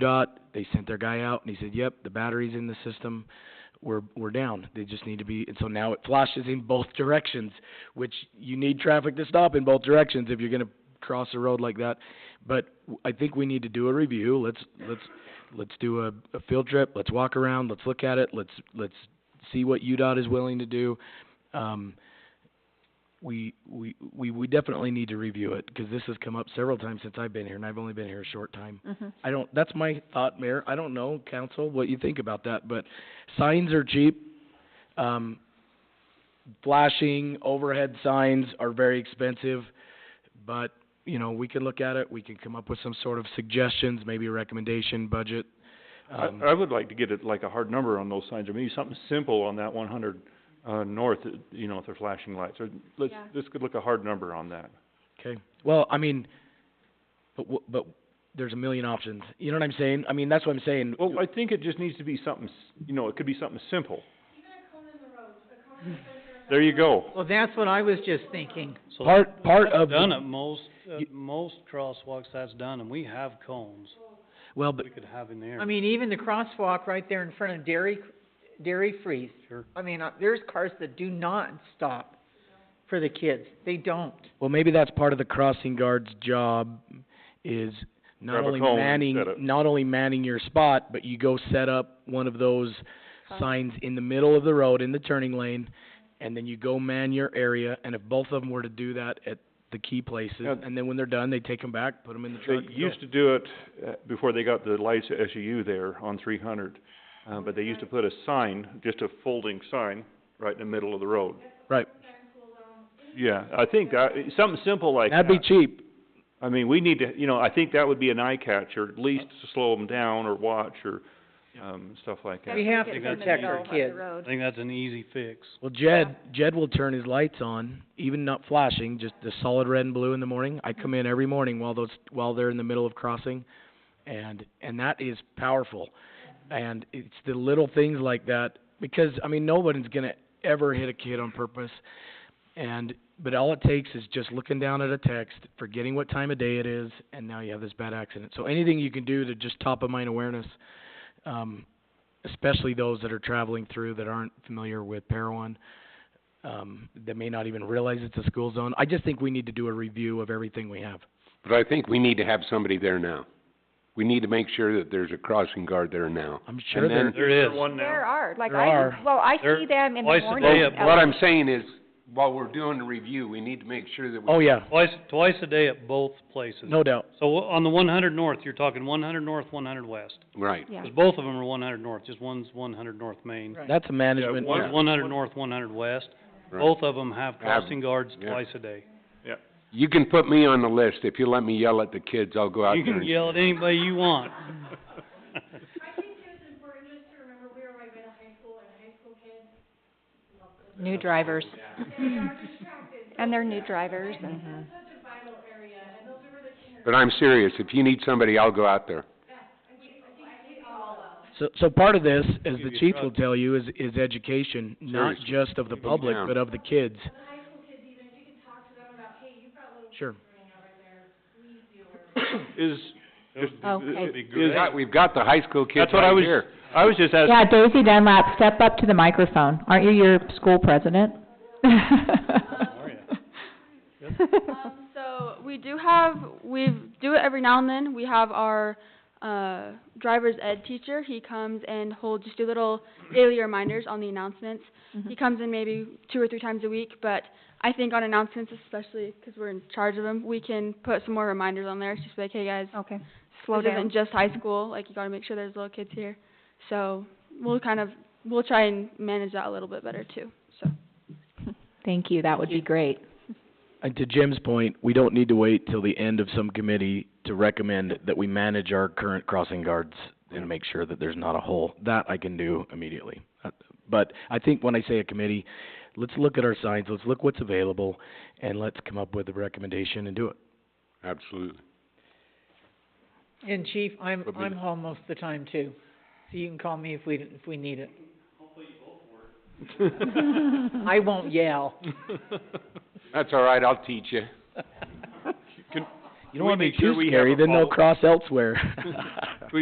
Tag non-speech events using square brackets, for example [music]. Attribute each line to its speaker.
Speaker 1: UDOT, they sent their guy out, and he said, yep, the battery's in the system, we're, we're down, they just need to be, and so now it flashes in both [laughs] directions, which you need traffic to stop in both directions if you're gonna cross a road like that. But w- I think we need to do a review, let's, let's, let's do a, a field trip, let's walk around, let's look at it, let's, let's see what UDOT is willing to do. Um, we, we, we, we definitely need to review it, because this has come up several times since I've been here, and I've only been here a short time.
Speaker 2: Mhm.
Speaker 1: I don't, that's my thought, Mayor. I don't know, council, what you think about that, but signs are cheap. Um, flashing overhead signs are very expensive, but, you know, we can look at it. We can come up with some sort of suggestions, maybe a recommendation, budget.
Speaker 3: I,
Speaker 1: Um,
Speaker 3: I would like to get it, like a hard number on those signs, I mean, something simple on that one hundred, uh, north, uh, you know, if they're flashing lights, or let's,
Speaker 2: Yeah.
Speaker 3: let's could look a hard number on that.
Speaker 1: Okay, well, I mean, but w- but there's a million options, you know what I'm saying? I mean, that's what I'm saying.
Speaker 3: Well, I think it just needs to be something, s- you know, it could be something simple. There you go.
Speaker 4: Well, that's what I was just thinking.
Speaker 5: So
Speaker 1: Part, part of, the-
Speaker 5: Done at most,
Speaker 1: You-
Speaker 5: at most crosswalks that's done, and we have cones
Speaker 1: well, but,
Speaker 5: we could have in there.
Speaker 4: I mean, even the crosswalk right there in front of Dairy, Dairy Freeze.
Speaker 5: Sure.
Speaker 4: I mean, uh, there's cars that do not stop for the kids. They don't.
Speaker 1: well, maybe that's part of the crossing guard's job is not
Speaker 3: Grab a
Speaker 1: only
Speaker 3: cone and
Speaker 1: manning,
Speaker 3: set it.
Speaker 1: not only manning your spot, but you go set up one of those signs in the middle of the road, in the turning lane, and then you go man your area, and if both of them were to do that at the key places,
Speaker 3: Yeah.
Speaker 1: and then when they're done, they take them back, put them in the
Speaker 3: They
Speaker 1: truck. and go.
Speaker 3: used to do it, uh, before they got the lights at SU there on three hundred, uh, but they used to put a sign, just a folding sign, right in the middle of the road.
Speaker 1: Right,
Speaker 3: Yeah, I think that, something simple like that.
Speaker 1: that'd be cheap.
Speaker 3: I mean, we need to, you know, I think that would be an eye catcher, at least to slow them down or watch or, um, stuff like that.
Speaker 4: We have to
Speaker 5: They gotta
Speaker 4: protect our
Speaker 5: take
Speaker 4: kids.
Speaker 5: I think that's an easy fix.
Speaker 1: Well, Jed, Jed will turn his lights on, even not flashing, just the solid red and blue in the morning. I come in every morning while those, while they're in the middle of crossing, and, and that is powerful. And it's the little things like that, because, I mean, nobody's gonna ever hit a kid on purpose. And, but all it takes is just looking down at a text, forgetting what time of day it is, and now you have this bad accident. So anything you can do to just top of mind awareness, um, especially those that are traveling through that aren't familiar with Parowan, um, that may not even realize it's a school zone. I just think we need to do a review of everything we have.
Speaker 6: But I think we need to have somebody there now. We need to make sure that there's a crossing guard there now.
Speaker 1: I'm sure
Speaker 6: And then,
Speaker 1: there,
Speaker 5: There is.
Speaker 3: One now.
Speaker 2: There are, like,
Speaker 1: There
Speaker 2: I,
Speaker 1: are.
Speaker 2: well, I
Speaker 5: There-
Speaker 2: see them in the
Speaker 5: twice a
Speaker 2: morning.
Speaker 5: day
Speaker 6: well,
Speaker 5: at
Speaker 2: at
Speaker 6: what
Speaker 2: like-
Speaker 6: I'm saying is, while we're doing the review, we need to make sure that we.
Speaker 1: oh yeah,
Speaker 5: Twice, twice a day at both places.
Speaker 1: no doubt.
Speaker 5: So on the one hundred north, you're talking one hundred north, one hundred west.
Speaker 6: Right.
Speaker 2: Yeah.
Speaker 5: 'Cause both of them are one hundred north, just one's one hundred north main.
Speaker 4: Right.
Speaker 1: That's a management.
Speaker 3: one-
Speaker 5: One's one hundred north, one hundred west.
Speaker 6: Right.
Speaker 5: Both of them have crossing guards
Speaker 6: yeah.
Speaker 5: twice a day.
Speaker 6: You can put me on the list. If you let me yell at the kids, I'll go out
Speaker 5: You
Speaker 6: there
Speaker 5: can
Speaker 6: and-
Speaker 5: yell at anybody you want.
Speaker 2: New drivers. [laughs] And they're new drivers
Speaker 4: Mm-hmm.
Speaker 2: and,
Speaker 6: But I'm serious. If you need somebody, I'll go out there.
Speaker 1: So, so part of this, as
Speaker 5: Give
Speaker 1: the
Speaker 5: you a
Speaker 1: chief will
Speaker 5: drug.
Speaker 1: tell you, is, is education, not
Speaker 6: Seriously.
Speaker 1: just of the
Speaker 6: Take 'em
Speaker 1: public,
Speaker 6: down.
Speaker 1: but of the kids. Sure.
Speaker 3: Is, just,
Speaker 2: Okay.
Speaker 3: is,
Speaker 6: We've got, we've got the high school kids
Speaker 3: that's what I
Speaker 6: right
Speaker 3: was,
Speaker 6: here.
Speaker 3: I was just asking,
Speaker 7: Yeah, Daisy Dunlap, step up to the microphone. Aren't you your school president? [laughs]
Speaker 8: Um, so we do have, we do it every now and then. We have our, uh, driver's ed teacher. He comes and holds just do little daily reminders on the announcements. He comes in maybe two or three times a week, but I think on announcements especially, because we're in charge of them, we can put some more reminders on there. It's Just like, hey guys,
Speaker 2: Oh, okay.
Speaker 8: slow
Speaker 2: slow
Speaker 8: down.
Speaker 2: down.
Speaker 8: isn't just high school. Like, you gotta make sure there's little kids here. So we'll kind of, we'll try and manage that a little bit better too, so.
Speaker 7: Thank you, that would be great.
Speaker 1: And to Jim's point, we don't need to wait till the end of some committee to recommend that we manage our current crossing guards and make sure that there's not a hole. That I can do immediately. Uh, But I think when I say a committee, let's look at our signs, let's look what's available, and let's come up with a recommendation and do it.
Speaker 6: Absolutely.
Speaker 4: And chief, I'm,
Speaker 6: But we-
Speaker 4: I'm home most of the time too, so you can call me if we, if we need it. [laughs] I won't yell.
Speaker 6: That's all right. I'll teach you.
Speaker 1: You don't
Speaker 3: We
Speaker 1: wanna be
Speaker 3: make sure
Speaker 1: too
Speaker 3: we have
Speaker 1: scary,
Speaker 3: a [laughs]
Speaker 1: then they'll
Speaker 3: follow- [laughs]
Speaker 1: cross elsewhere. [laughs]
Speaker 3: we